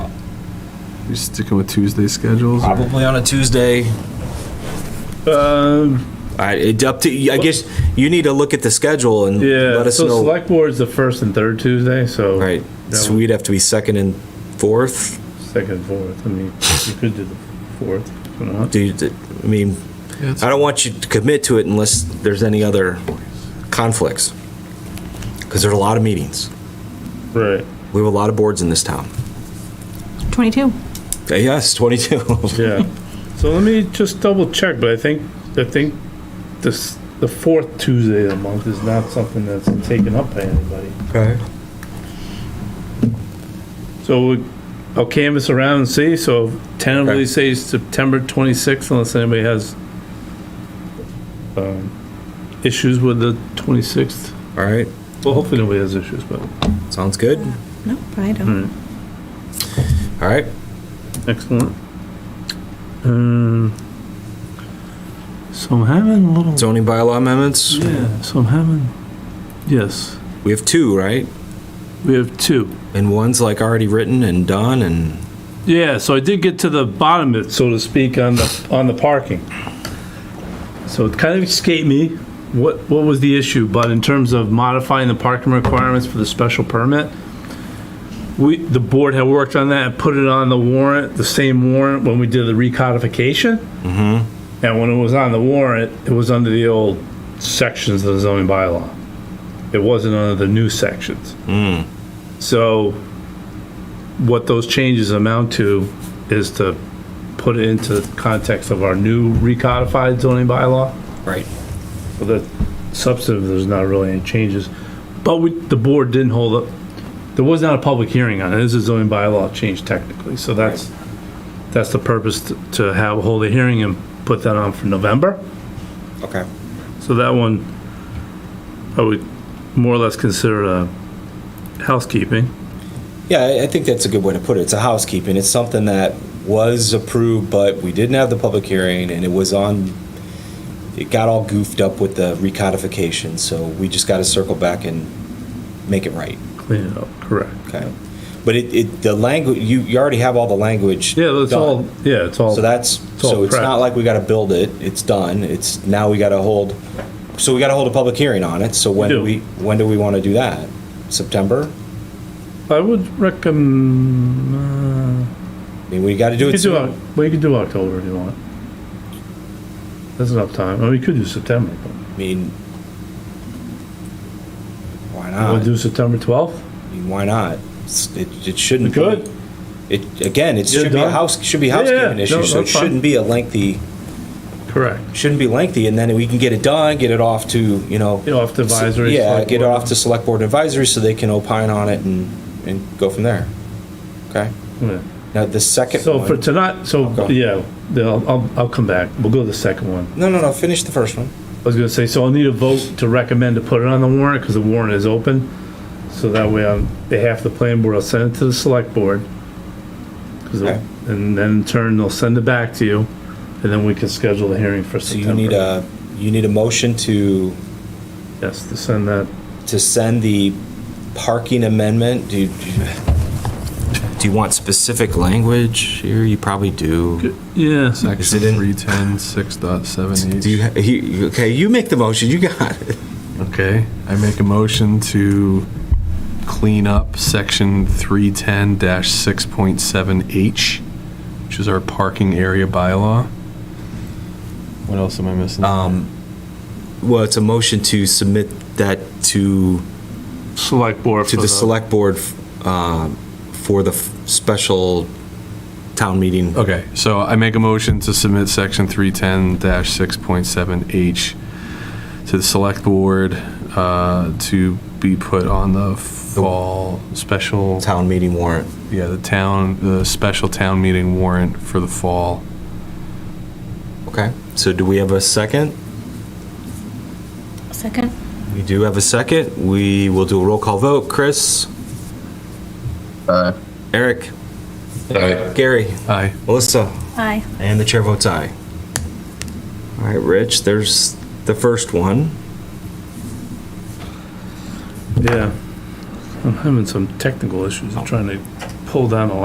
You sticking with Tuesday schedules? or- Probably on a Tuesday. Um, I, it up to, I guess you need to look at the schedule and yeah, let us so know. select board's the first and third Tuesday, so. Right, that so would- we'd have to be second and fourth. Second, fourth, I mean, you could do the fourth, if you want. Do you, I mean, Yeah, it's- I don't want you to commit to it unless there's any other conflicts. Because there are a lot of meetings. right, We have a lot of boards in this town. 22. Uh, Yes, 22. yeah. So let me just double check, but I think, I think this, the fourth Tuesday of the month is not something that's taken up by anybody. Okay. So we- I'll canvas around and see, so tentatively Okay. say September 26th unless anybody has um, issues with the 26th. All right, Well, hopefully nobody has issues, but sounds good. All No, I don't. right, excellent. Um, So I'm having a little, zoning bylaw amendments, yeah, so I'm having, yes, we have two, right? we have two. And one's like already written and done and, Yeah, so I did get to the bottom of it, so to speak, on the, on the parking. So it kind of escaped me, what, what was the issue, but in terms of modifying the parking requirements for the special permit, we, the board had worked on that, and put it on the warrant, the same warrant when we did the recodification. And when it was on the warrant, it was under the old sections of the zoning bylaw. It wasn't under the new sections. So what those changes amount to is to put it into the context of our new recodified zoning bylaw. right, Well, the substantive, there's not really any changes, but we, the board didn't hold up, there was not a public hearing on it, this is zoning bylaw change technically, so that's, that's the purpose to- to have, hold a hearing and put that on for November. okay. So that one, I would more or less consider a housekeeping. Yeah, I- I think that's a good way to put it. It's a housekeeping. It's something that was approved, but we didn't have the public hearing, and it was on, it got all goofed up with the recodification, so we just got to circle back and make it right, Clean it up, correct. okay? But it, it, the language, you, you already have all the language. Yeah, that's done. all, yeah, it's all. So that's, It's all so it's prepped. not like we got to build it, it's done, it's, now we got to hold, so we got to hold a public hearing on it, so when We do do. we, when do we want to do that? September? I would recommend. I mean, we got to do You it could do, soon. Oc- well, you could do October if you want. That's enough time. Well, we could do September. I mean, why We'll not? do September 12th. I mean, why not? It's- It, it shouldn't. We could. be- It, again, it You're should be a done. house, should be a Yeah, yeah, housekeeping no, issue, so it that's fine. shouldn't be a lengthy, Correct. shouldn't be lengthy, and then we can get it done, get it off to, you know. Get off to advisory, Yeah, select get it board. off to select board advisory so they can opine on it and, and go from there. Okay? Yeah. Now, the second So for one, tonight, so Okay. yeah, then I'll, I'll, I'll come back. We'll go to the second one. no, no, no, finish the first one. I was gonna say, so I'll need a vote to recommend to put it on the warrant because the warrant is open. So that way on behalf of the planning board, I'll send it to the select board. 'Cause Okay. it- And then in turn, they'll send it back to you and then we can schedule the hearing for So you September. need a, you need a motion to, Yes, to send that to send the parking amendment, do you? Do you want specific language here? You probably do. Yeah, Section it in- 310, 6.7 Do you, each. ha- he- okay, you make the motion, you got it. Okay, I make a motion to clean up section 310-6.7H, which is our parking area bylaw. What else am I missing? Um, Well, it's a motion to submit that to, select board. to for the select board um, for the f- special town meeting. Okay, so I make a motion to submit section 310-6.7H to the select board uh, to be put on the fall special, Town meeting warrant. yeah, the town, the special town meeting warrant for the fall. Okay. So do we have a second? Second? We do have a second. We will do a roll call vote. Chris? Eric? Gary? Aye. Melissa? Aye. And the chair votes aye. All right, Rich, there's the first one. Yeah. I'm having some technical issues. I'm trying to pull down a